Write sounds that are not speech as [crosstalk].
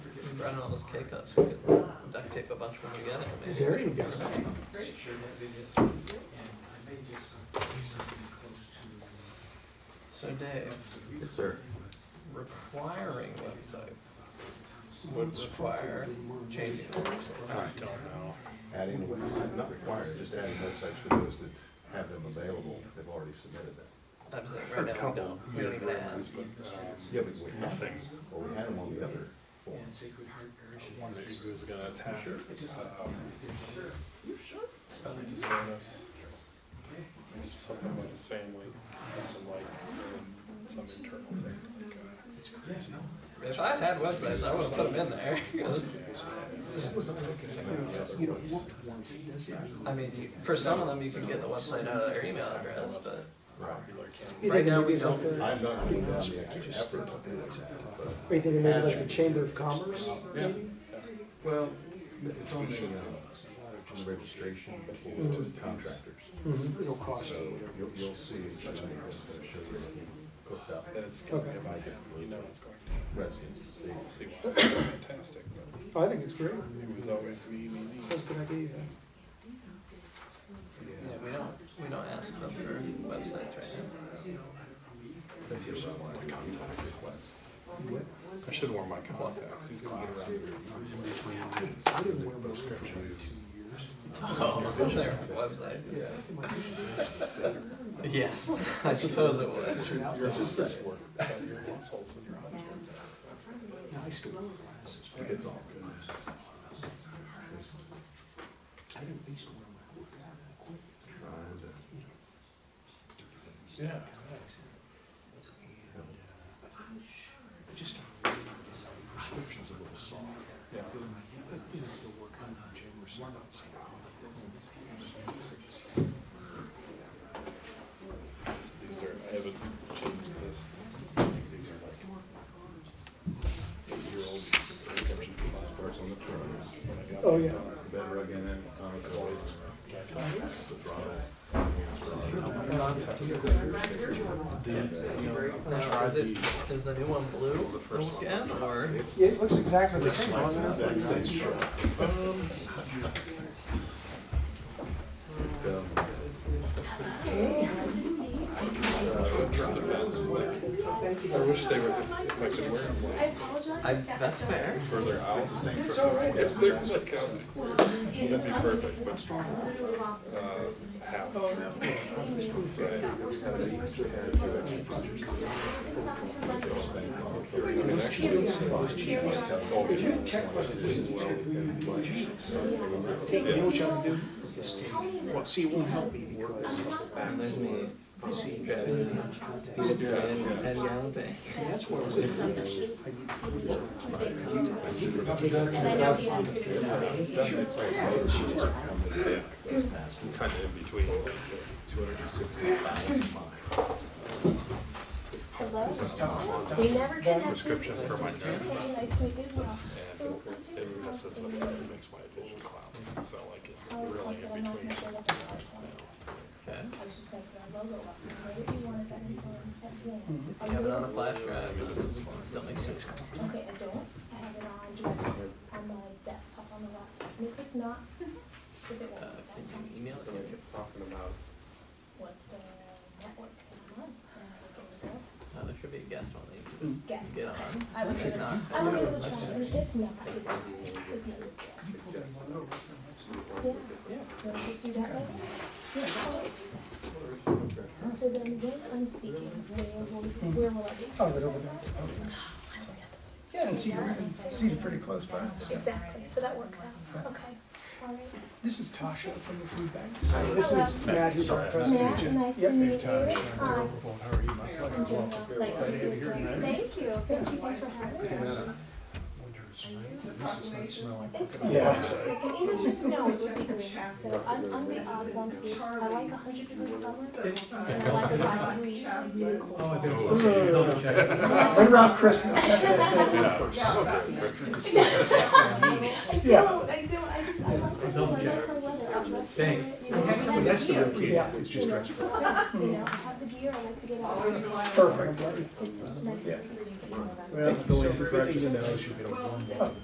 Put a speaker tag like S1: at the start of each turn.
S1: Brought in all those K-cups, we could duct tape a bunch of them together. maybe.
S2: There you go.
S3: Sure, that they did. And I may just do something close to.
S1: So Dave,
S4: Yes, sir.
S1: requiring websites would require changing the website.
S5: I don't know.
S4: Adding the website, not required, just adding websites for those that have them available, they've already submitted them.
S1: I'm saying
S5: For a
S1: right now we
S5: couple
S1: don't, we don't
S5: minute
S1: even
S5: rounds,
S1: ask.
S5: but, um,
S4: Yeah, but we have them,
S5: nothing.
S4: or we had them on the other form.
S3: And Sacred Heart Parish.
S5: I wondered who was gonna attack, um, to say this. Something about his family, something like, um, some internal thing, like, uh,
S3: It's crazy.
S1: If I had websites, I would've put them in there.
S2: You know, once, once, it doesn't mean.
S1: I mean, you- for some of them, you can get the website out of their email address, but
S4: Right.
S5: popular candidate.
S2: You're
S1: right
S2: thinking
S1: now we
S2: maybe like
S1: don't.
S2: the- Are
S4: I'm not putting down the extra effort to do that, but.
S2: you thinking maybe like the Chamber of Commerce, maybe?
S4: Well, it's on the, uh, on the registration for contractors.
S2: Mhm, Mm-hmm. It'll cost you.
S4: You'll, you'll see, it's gonna show you hooked up
S5: That it's gonna be
S2: Okay.
S5: about him, you know it's going to.
S4: residents to see.
S5: We'll see why, it's fantastic, but
S2: I think it's great.
S5: it was always me, me, me.
S2: That's a good idea.
S1: Yeah, we don't, we don't ask them for websites right now. [laughs]
S4: If you don't want to
S5: Contacts.
S2: What?
S5: I should have worn my contacts, these glasses.
S2: I didn't wear those for two years.
S1: Oh, [laughs] their website.
S4: Yeah.
S1: Yes, [laughs] I suppose it would.
S5: Your eyes work,
S2: [laughs]
S5: but your muscles and your eyes work. That's what it
S2: Now, I still wear glasses.
S4: It's all good.
S2: I didn't, I used to wear my old glasses. I quit.
S4: Trying to.
S5: is. Yeah.
S2: And, uh, I just started reading it, and the prescription's a little soft.
S5: Yeah.
S2: But, you know, they'll work on the gym or something. so,
S5: These- These are, I haven't changed this. I think These are like eight-year-old prescription glasses.
S4: Starts on the turn.
S5: When I got
S2: Oh,
S5: them
S2: yeah.
S5: done,
S4: The better I get in, the time it
S5: I
S4: goes.
S5: always got glasses.
S1: Now, is it, is the new one blue again, or?
S2: Yeah, it looks exactly the same.
S4: Exact same truck. Um,
S5: So just the ones there. I wish they were, if if I could wear them
S6: I
S5: like
S1: I,
S6: apologize. if that
S1: that's
S6: was
S1: fair.
S5: further out.
S4: It's the same truck.
S5: If they're like out to
S6: wrong.
S5: That'd be perfect, but,
S6: I literally lost it.
S5: uh, half.
S2: If you check what it is, you check who you do, you should say, you know what you ought to do? Is take, well, see, it won't help me because,
S1: And there's me driving in a
S2: contacts.
S1: pizza ten gallon tank.
S2: and that's where I was in the years. I need to do this.
S4: That makes me say it's just come to the-
S5: Kind of in between.
S4: 260,000 miles.
S6: Hello? We never connected.
S5: Prescriptions for my nerves.
S6: Okay, nice to meet you as well. So
S5: And
S6: I'm doing
S5: it messes with, it makes my vision cloud. So like it really in between.
S1: Okay.
S6: I was just gonna put our logo up. Maybe you wanted that info and stuff, yeah.
S1: You have it on a flash
S5: I mean,
S1: drive.
S5: this is fun.
S1: Don't make sense.
S6: Okay, I don't. I have it on direct on my desktop on the laptop. And if it's not, if it
S1: Uh,
S6: won't, that's
S1: can
S6: fine.
S1: you email it?
S5: Talking about
S6: What's the network that I'm on? Uh, there we go.
S1: Uh, there should be a guest on that you can
S6: Guess.
S1: just get on.
S6: I would
S1: If
S6: give it,
S1: not,
S6: I would
S1: then
S6: give it a
S1: let's
S6: try,
S1: just-
S6: and if not, it's, it's, not yeah, wanna just do that later? Alright. So then when I'm speaking, where will, where will I be? Oh, right over there.
S7: Yeah, and Cedar, Cedar pretty close by. so.
S6: Exactly, so that works out, okay, alright.
S7: This is Tasha from the Food Bank. So this
S6: Hello.
S7: is Matt, who's our president.
S6: Matt, nice to
S7: Yep.
S6: meet you. Hi. I'm doing well. Nice to meet you. Thank you, thank you, thanks for having me. It's fantastic, and even with snow, it would be great, so I'm, I'm the odd one, who- I like a hundred degree summers, and I like a five degree really cold.
S7: Right around Christmas, that's
S6: [laughs]
S7: it.
S6: I do,
S7: Yeah.
S6: I do, I just, I like, I like her weather, I dress for it, you know, I have the
S7: That's the
S6: gear.
S7: real key. Yeah, it's
S6: You
S7: just
S6: know,
S7: dress for.
S6: You know, I have the gear, I like to get out,
S7: Perfect.
S6: it's nice to see you.
S7: Well, the only good thing to know is you get a warm one.